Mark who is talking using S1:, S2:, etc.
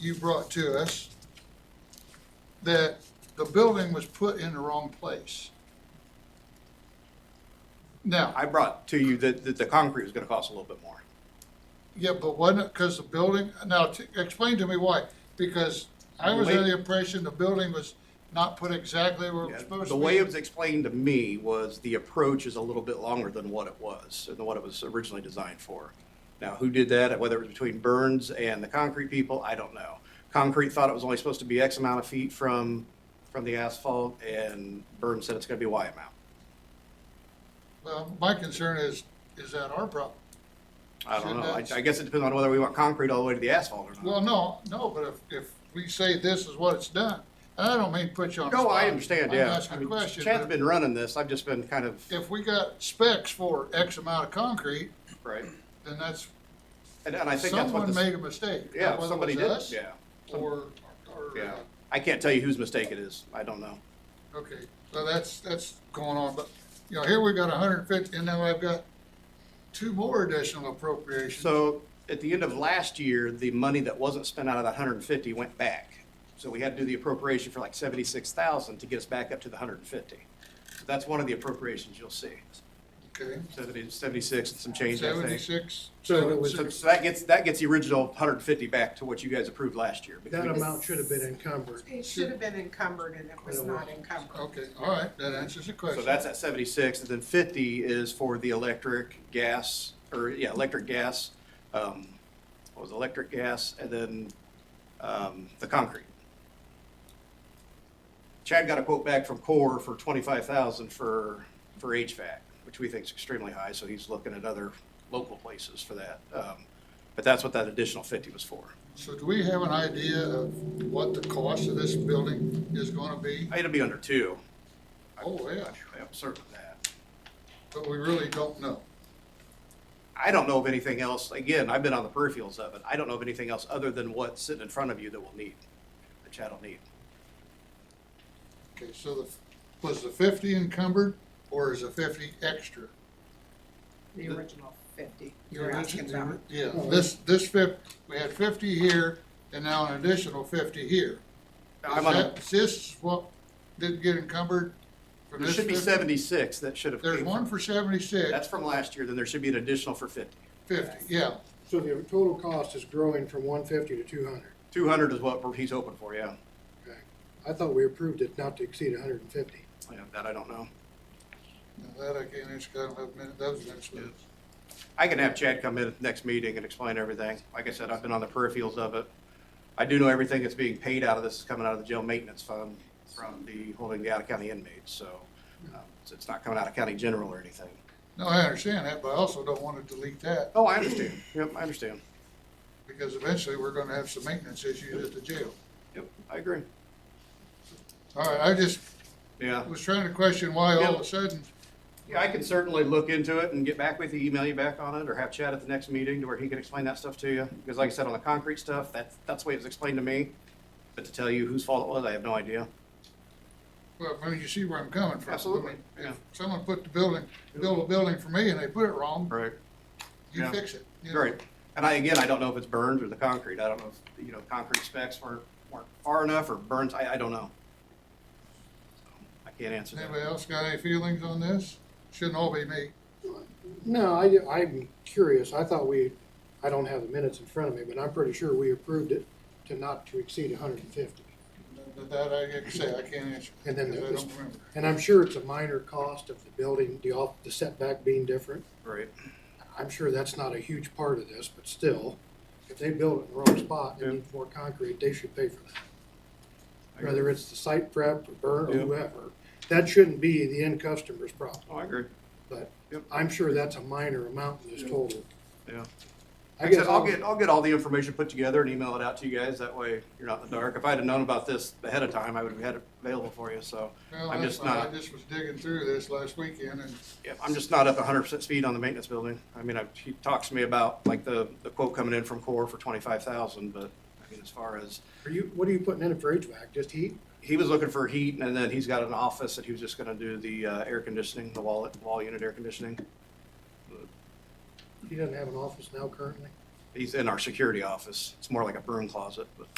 S1: you brought to us that the building was put in the wrong place. Now,
S2: I brought to you that, that the concrete was gonna cost a little bit more.
S1: yeah, but wasn't it because the building, now, t- explain to me why, because I was under the impression the building was not put exactly where it was supposed to
S2: The
S1: be.
S2: way it was explained to me was the approach is a little bit longer than what it was, and what it was originally designed for. Now, who did that, whether it was between Burns and the concrete people, I don't know. Concrete thought it was only supposed to be X amount of feet from, from the asphalt, and Burns said it's gonna be Y amount.
S1: Well, my concern is, is that our problem?
S2: I don't
S1: Should
S2: know, I,
S1: that-
S2: I guess it depends on whether we want concrete all the way to the asphalt or
S1: Well,
S2: not.
S1: no, no, but if, if we say this is what it's done, and I don't mean put you on the
S2: No,
S1: spot.
S2: I understand, yeah.
S1: I'm
S2: I
S1: asking a
S2: mean,
S1: question.
S2: Chad's
S1: but-
S2: been running this, I've just been kind of,
S1: if we got specs for X amount of concrete,
S2: right,
S1: then that's,
S2: and, and I think that's what
S1: someone
S2: this.
S1: made a mistake.
S2: Yeah,
S1: whether it
S2: somebody
S1: was
S2: did,
S1: us
S2: yeah.
S1: Or, or,
S2: Yeah,
S1: uh,
S2: I can't tell you whose mistake it is. I don't know.
S1: okay, so that's, that's going on, but, you know, here we got hundred and fifty, and now I've got two more additional appropriations.
S2: So at the end of last year, the money that wasn't spent out of the hundred and fifty went back. So we had to do the appropriation for like seventy-six thousand to get us back up to the hundred and fifty. So that's one of the appropriations you'll see.
S1: Okay,
S2: 70 76 and some change, I think.
S1: seventy-six.
S3: So it was-
S2: So so that gets, that gets the original hundred and fifty back to what you guys approved last year. because
S3: That
S2: we-
S3: amount should have been encumbered.
S4: It should have been encumbered and it was not encumbered.
S1: Okay, all right, that answers the question.
S2: So that's at seventy-six, and then fifty is for the electric, gas, or, yeah, electric, gas, um, what was it, electric, gas, and then, um, the concrete. Chad got a quote back from Core for twenty-five thousand for, for HVAC, which we think is extremely high, so he's looking at other local places for that. Um, But that's what that additional fifty was for.
S1: So do we have an idea of what the cost of this building is gonna be?
S2: It'll be under two,
S1: Oh, yeah,
S2: I'm certain of that.
S1: but we really don't know.
S2: I don't know of anything else, again, I've been on the peripherals of it, I don't know of anything else other than what's sitting in front of you that we'll need, that Chad will need.
S1: Okay, so the, was the fifty encumbered, or is the fifty extra?
S4: The original fifty.
S1: You
S4: You're asking
S1: mentioned
S4: about.
S1: the- Yeah, this, this fif, we had fifty here, and now an additional fifty here. Is
S2: I'm on a-
S1: that, is this what didn't get encumbered? from
S2: There
S1: this
S2: should be
S1: 50?
S2: seventy-six that should have
S1: There's
S2: came
S1: one
S2: from,
S1: for seventy-six,
S2: that's from last year, then there should be an additional for fifty.
S1: fifty, yeah.
S3: So the total cost is growing from one fifty to two hundred.
S2: Two hundred is what he's hoping for, yeah,
S3: Okay. I thought we approved it not to exceed hundred and fifty.
S2: Yeah, that I don't know.
S1: Now, That I can't answer, 'cause I don't have many, that was next week.
S2: I can have Chad come in at the next meeting and explain everything, like I said, I've been on the peripherals of it. I do know everything that's being paid out of this is coming out of the jail maintenance fund from the, holding the out-of-county inmates, so, um, so it's not coming out of county general or anything.
S1: No, I understand that, but I also don't wanna delete that,
S2: Oh, I understand. Yep, I understand.
S1: because eventually we're gonna have some maintenance issues at the jail.
S2: Yep, I agree.
S1: All right, I just
S2: Yeah.
S1: was trying to question why all of
S2: Yeah.
S1: a sudden,
S2: Yeah, I can certainly look into it and get back with you, email you back on it, or have Chad at the next meeting to where he can explain that stuff to you. Because like I said, on the concrete stuff, that's, that's the way it was explained to me. But to tell you whose fault it was, I have no idea.
S1: Well, I mean, you see where I'm coming from.
S2: Absolutely,
S1: I mean,
S2: yeah.
S1: If someone put the building, built a building for me and they put it wrong,
S2: Right.
S1: you
S2: Yeah.
S1: fix it. you know?
S2: Great. And I, again, I don't know if it's Burns or the concrete. I don't know if, you know, concrete specs weren't, weren't far enough or Burns, I, I don't know. So, I can't answer that.
S1: Anybody else got any feelings on this? Shouldn't all be me.
S3: No, I, am curious. I thought we, I don't have the minutes in front of me, but I'm pretty sure we approved it to not to exceed hundred and fifty.
S1: That- That I can say, I can't answer.
S3: And then
S1: because I
S3: it was-
S1: don't remember.
S3: And I'm sure it's a minor cost of the building, the off, the setback being different.
S2: Great.
S3: I'm sure that's not a huge part of this, but still, if they build it in the wrong spot
S2: Yeah.
S3: and need more concrete, they should pay for that.
S2: I agree.
S3: Whether it's the site prep or burn
S2: Yeah.
S3: or whoever, that shouldn't be the end customer's problem,
S2: Oh, I agree.
S3: but
S2: Yep.
S3: I'm sure that's a minor amount in this total.
S2: Yeah.
S3: I
S2: Like I
S3: guess
S2: said, I'll
S3: I'll-
S2: get, I'll get all the information put together and email it out to you guys, that way you're not in the dark. If I'd have known about this ahead of time, I would have had it available for you, so.
S1: Well,
S2: I'm
S1: that's
S2: just
S1: fine. I
S2: not,
S1: just was digging through this last weekend and
S2: yeah, I'm just not up hundred percent speed on the maintenance building. I mean, I, he talks to me about like the, the quote coming in from Core for twenty-five thousand, but I mean, as far as,
S3: Are you, what are you putting in it for HVAC, just heat?
S2: he was looking for heat and then he's got an office that he was just gonna do the, uh, air conditioning, the wall, wall unit air conditioning.
S3: He doesn't have an office now currently?
S2: He- He's in our security office. It's more like a broom closet, but.